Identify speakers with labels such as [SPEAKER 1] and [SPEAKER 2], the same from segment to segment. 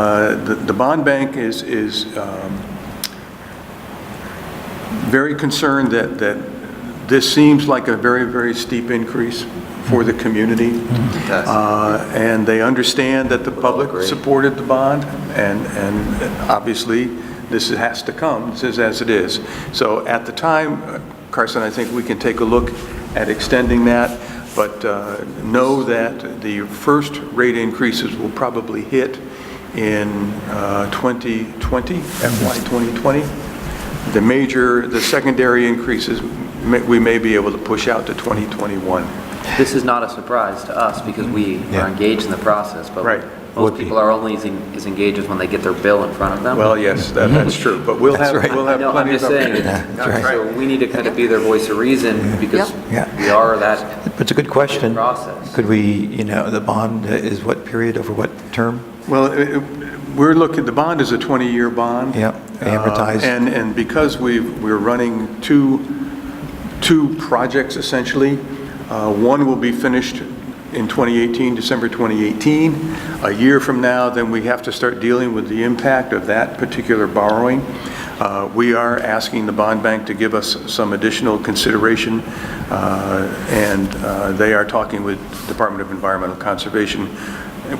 [SPEAKER 1] Uh, The the bond bank is, is um, very concerned that, that this seems like a very, very steep increase for the community.
[SPEAKER 2] does.
[SPEAKER 1] Uh, And they understand that the public
[SPEAKER 2] agree.
[SPEAKER 1] supported the bond, and, and obviously, this has to come, this is as it is. So at the time, Carson, I think we can take a look at extending that, but uh, know that the first rate increases will probably hit in uh, 2020, FY 2020. The major, the secondary increases, may- we may be able to push out to 2021.
[SPEAKER 2] This is not a surprise to us because we
[SPEAKER 3] Yeah.
[SPEAKER 2] are engaged in the process, but
[SPEAKER 1] Right.
[SPEAKER 3] Would
[SPEAKER 2] most
[SPEAKER 3] be.
[SPEAKER 2] people are only as en- as engaged as when they get their bill in front of them.
[SPEAKER 1] Well, yes, that- that's true, but we'll have, we'll have
[SPEAKER 2] No, I'm
[SPEAKER 1] plenty of
[SPEAKER 2] just saying,
[SPEAKER 1] opportunity.
[SPEAKER 2] it's-
[SPEAKER 3] that's right.
[SPEAKER 2] so we need to kind of be their voice of reason because
[SPEAKER 3] Yeah.
[SPEAKER 2] we are that,
[SPEAKER 3] But it's a good question.
[SPEAKER 2] Process.
[SPEAKER 3] Could we, you know, the bond is what period, over what term?
[SPEAKER 1] Well, it- it- we're looking, the bond is a 20-year bond.
[SPEAKER 3] Yeah, amortized.
[SPEAKER 1] Uh, And, and because we've, we're running two, two projects essentially, uh, one will be finished in 2018, December 2018. A year from now, then we have to start dealing with the impact of that particular borrowing. Uh, We are asking the bond bank to give us some additional consideration, uh, and uh, they are talking with Department of Environmental Conservation,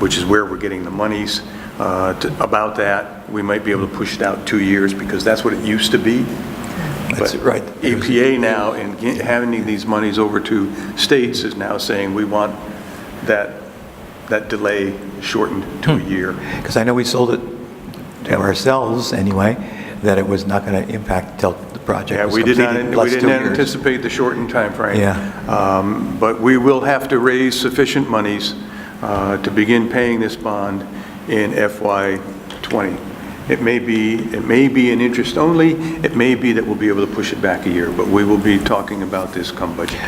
[SPEAKER 1] which is where we're getting the monies, uh, to- about that. We might be able to push it out two years, because that's what it used to be.
[SPEAKER 3] That's
[SPEAKER 1] But
[SPEAKER 3] right.
[SPEAKER 1] EPA now, in ge- handing these monies over to states, is now saying, we want that, that delay shortened to a year.
[SPEAKER 3] Because I know we sold it to ourselves anyway, that it was not going to impact till the project
[SPEAKER 1] Yeah,
[SPEAKER 3] was
[SPEAKER 1] we did
[SPEAKER 3] completed.
[SPEAKER 1] not, we
[SPEAKER 3] plus two
[SPEAKER 1] didn't
[SPEAKER 3] years.
[SPEAKER 1] anticipate the shortened timeframe.
[SPEAKER 3] Yeah.
[SPEAKER 1] Um, But we will have to raise sufficient monies uh, to begin paying this bond in FY '20. It may be, it may be in interest only, it may be that we'll be able to push it back a year, but we will be talking about this come budget.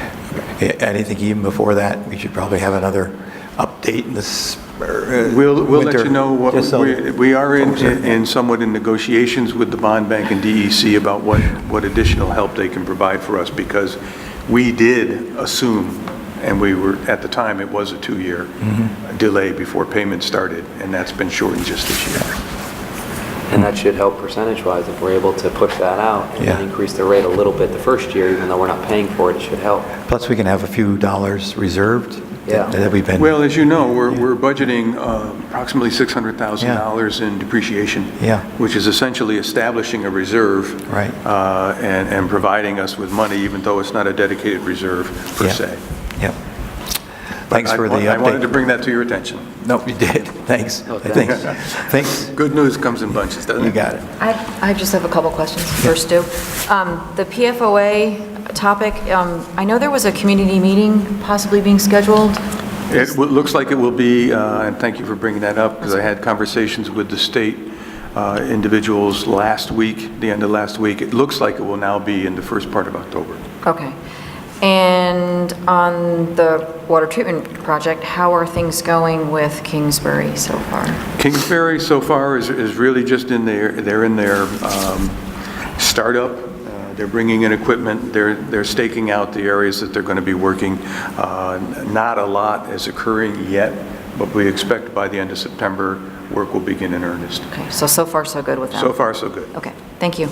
[SPEAKER 3] Yeah, And I think even before that, we should probably have another update in this uh,
[SPEAKER 1] We'll, we'll let
[SPEAKER 3] winter,
[SPEAKER 1] you know what,
[SPEAKER 3] just so-
[SPEAKER 1] we we are in,
[SPEAKER 3] Folks are-
[SPEAKER 1] in somewhat in negotiations with the bond bank and DEC about what, what additional help they can provide for us, because we did assume, and we were, at the time, it was a two-year delay before payment started, and that's been shortened just this year.
[SPEAKER 2] and that should help percentage-wise if we're able to push that out
[SPEAKER 3] Yeah.
[SPEAKER 2] and increase the rate a little bit the first year, even though we're not paying for it, it should help.
[SPEAKER 3] Plus, we can have a few dollars reserved
[SPEAKER 2] Yeah.
[SPEAKER 3] that that we've been.
[SPEAKER 1] Well, as you know, we're, we're budgeting uh, approximately $600,000 in depreciation.
[SPEAKER 3] Yeah.
[SPEAKER 1] Which is essentially establishing a reserve.
[SPEAKER 3] Right.
[SPEAKER 1] uh, And, and providing us with money, even though it's not a dedicated reserve per
[SPEAKER 3] Yeah.
[SPEAKER 1] se.
[SPEAKER 3] Yep. Thanks
[SPEAKER 1] I
[SPEAKER 3] for the
[SPEAKER 1] wa-
[SPEAKER 3] update.
[SPEAKER 1] I wanted to bring that to your attention.
[SPEAKER 3] Nope, you did. Thanks.
[SPEAKER 2] Oh,
[SPEAKER 3] Thanks. Thanks.
[SPEAKER 1] Good news comes in bunches, doesn't it?
[SPEAKER 3] You got it.
[SPEAKER 4] I, I just have a couple questions. First, Stu, Um, the PFOA topic, um, I know there was a community meeting possibly being scheduled.
[SPEAKER 1] It w- looks like it will be, uh, and thank you for bringing that up, because I had conversations with the state uh, individuals last week, the end of last week. It looks like it will now be in the first part of October.
[SPEAKER 4] Okay. And on the water treatment project, how are things going with Kingsbury so far?
[SPEAKER 1] Kingsbury so far is, is really just in their, they're in their um, startup. Uh, They're bringing in equipment, they're, they're staking out the areas that they're going to be working. Uh, Not a lot is occurring yet, but we expect by the end of September, work will begin in earnest.
[SPEAKER 4] Okay, so, so far, so good with them?
[SPEAKER 1] So far, so good.
[SPEAKER 4] Okay, thank you.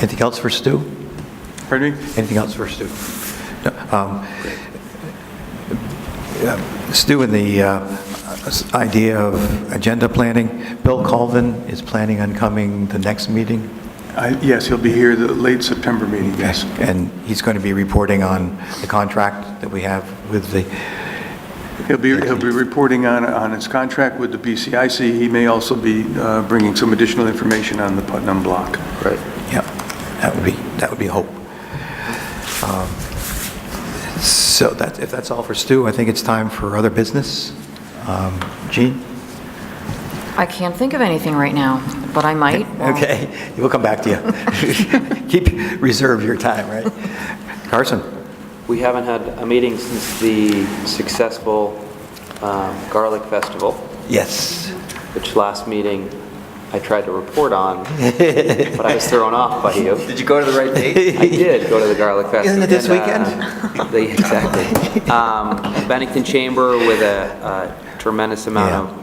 [SPEAKER 3] Anything else for Stu?
[SPEAKER 1] Pardon me?
[SPEAKER 3] Anything else for Stu? No, um, yeah, Stu, and the uh, s- idea of agenda planning, Bill Colvin is planning on coming the next meeting,
[SPEAKER 1] I- Yes, he'll be here, the late September meeting, yes.
[SPEAKER 3] and he's going to be reporting on the contract that we have with the,
[SPEAKER 1] He'll be, he'll be reporting on, on his contract with the BCIC. He may also be uh, bringing some additional information on the Putnam Block.
[SPEAKER 2] Right.
[SPEAKER 3] yeah, that would be, that would be hope. Um, So that, if that's all for Stu, I think it's time for other business. Um, Gene?
[SPEAKER 4] I can't think of anything right now, but I might. Well,
[SPEAKER 3] Okay, we'll come back to you. Keep, reserve your time, right? Carson?
[SPEAKER 2] We haven't had a meeting since the successful um, Garlic Festival.
[SPEAKER 3] Yes.
[SPEAKER 2] which last meeting I tried to report on, but I was thrown off by you.
[SPEAKER 3] you go to the right
[SPEAKER 2] I did go to the Garlic Fest.
[SPEAKER 3] Isn't it this
[SPEAKER 2] and, uh, they- Exactly. Um, Bennington Chamber with a a tremendous amount
[SPEAKER 3] Yeah.
[SPEAKER 2] of